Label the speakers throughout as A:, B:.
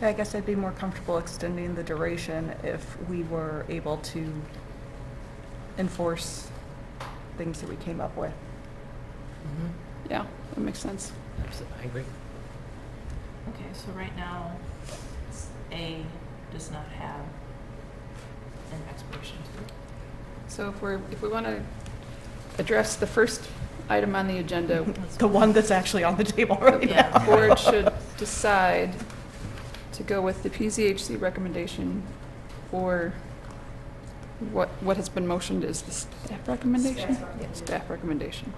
A: Yeah, I guess I'd be more comfortable extending the duration if we were able to enforce things that we came up with.
B: Yeah, that makes sense.
C: I agree.
D: Okay, so right now, s- A does not have an expiration to it.
B: So if we're, if we want to address the first item on the agenda,
A: The one that's actually on the table right now.
D: Yeah.
B: the board should decide to go with the PZHC recommendation or what, what has been motioned is the staff recommendation? Mm. Staff recommendation.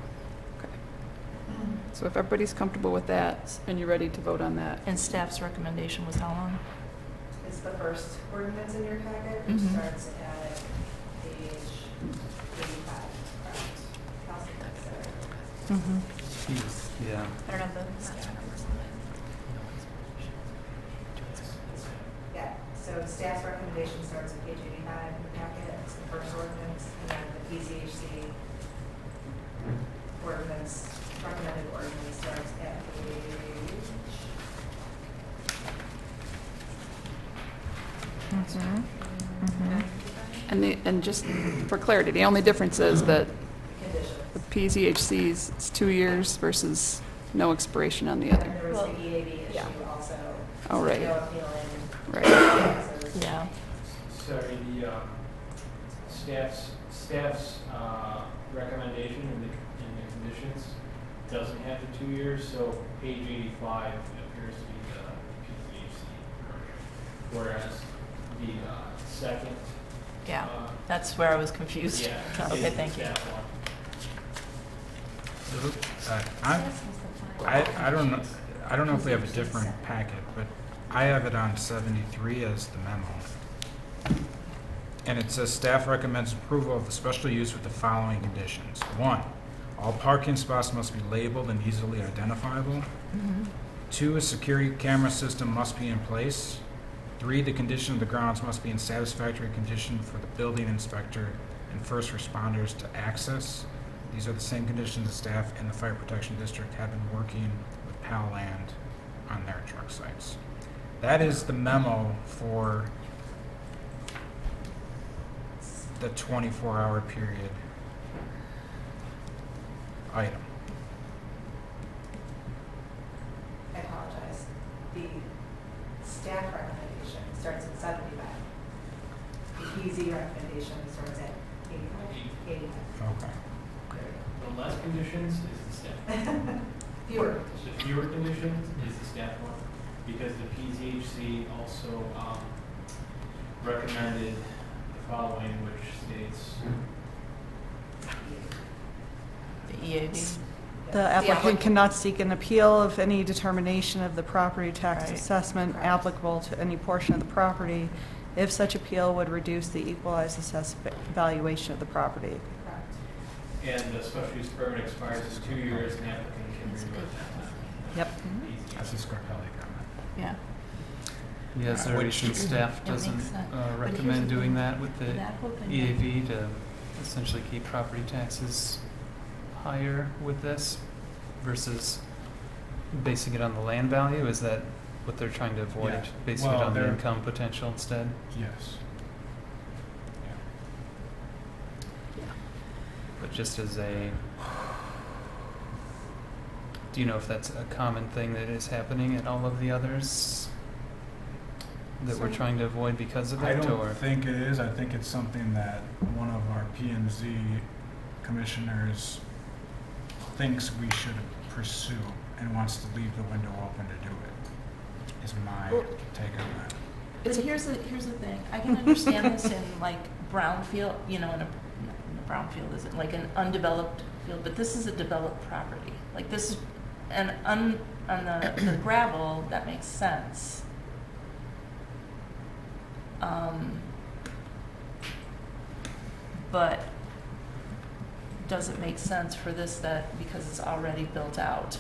B: Okay. So if everybody's comfortable with that and you're ready to vote on that,
D: And staff's recommendation was how long?
E: It's the first ordinance in your packet, which
B: Mm-hmm.
D: Mhm.
E: starts at page eighty-five. correct? How's it considered?
A: Mhm.
C: Jeez, yeah.
D: I don't know
E: Yeah, so staff's recommendation starts at page eighty-five in the packet, it's the first ordinance, and then the PCHC ordinance, recommended ordinance starts at page,
A: Mhm. Mhm.
B: and the, and just for clarity, the only difference is that
E: conditions.
B: the PZHC's is two years versus no expiration on the
E: And
B: other.
E: there was the
D: Well-
E: EAB
B: Yeah.
E: issue also.
B: Oh, right.
E: No appealing.
B: Right.
E: Yeah.
D: Yeah,
F: Sorry, the um, staff's, staff's uh, recommendation in the, in the conditions doesn't have the two years, so page eighty-five appears to be the PCHC. Whereas the uh, second.
D: yeah,
F: uh,
D: that's where I was confused.
F: Yeah.
D: Okay,
F: is
D: thank you.
F: that one.
G: Uh, I, I, I don't know, I don't know if we have a different packet, but I have it on seventy-three as the memo. And it says staff recommends approval of the special use with the following conditions. One, all parking spots must be labeled and easily identifiable. Two, a security camera system must be in place. Three, the condition of the grounds must be in satisfactory condition for the building inspector and first responders to access. These are the same conditions the staff and the fire protection district have been working with Pal Land on their truck sites. That is the memo for the twenty-four hour period item.
E: I apologize. The staff recommendation starts at seventy-five. The PZ recommendation starts at eighty-five. Eighty-five.
G: Okay.
F: The less conditions is the staff.
E: Fewer.
F: The fewer conditions is the staff one, because the PZHC also um, recommended the following, which states,
D: The E EAB,
A: The applicant cannot seek an appeal of any determination of the property tax
D: Right.
A: assessment applicable to any portion of the property if such appeal would reduce the equalized assessed va- valuation of the property.
E: Correct.
F: and the special use permit expires in two years, and the applicant can renew it that time.
A: Yep.
G: That's a Scarpelli comment.
D: yeah.
H: Yeah, is there a
G: Which-
H: reason staff
D: It makes
H: doesn't
D: sense.
H: uh,
D: But here's
H: recommend
D: the
H: doing
D: thing.
H: that with the
D: That whole thing-
F: E
H: EAV to essentially keep property taxes higher with this versus basing it on the land value? Is that what they're trying to avoid,
G: Yeah.
H: basing it
G: Well,
H: on the
G: they're-
H: income potential instead?
G: Yes.
H: But just as a, do you know if that's a common thing that is happening at all of the others that we're
B: So-
H: trying to avoid because of
G: I
H: it,
G: don't
H: or?
G: think it is. I think it's something that one of our P and Z commissioners thinks we should pursue and wants to leave the window open to do it, is my
D: Well-
G: take on that.
D: But here's the, here's the thing, I can understand this in like brownfield, you know, in a, in a brownfield isn't like an undeveloped field, but this is a developed property. Like this, is an un, on the the gravel, that makes sense. Um, But does it make sense for this that, because it's already built out?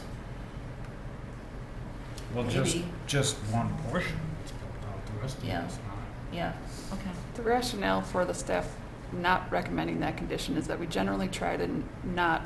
G: Well, just,
D: Maybe.
G: just one portion is built out, the rest of
D: Yeah.
G: it is not.
D: Yeah, okay.
B: The rationale for the staff not recommending that condition is that we generally try to n- not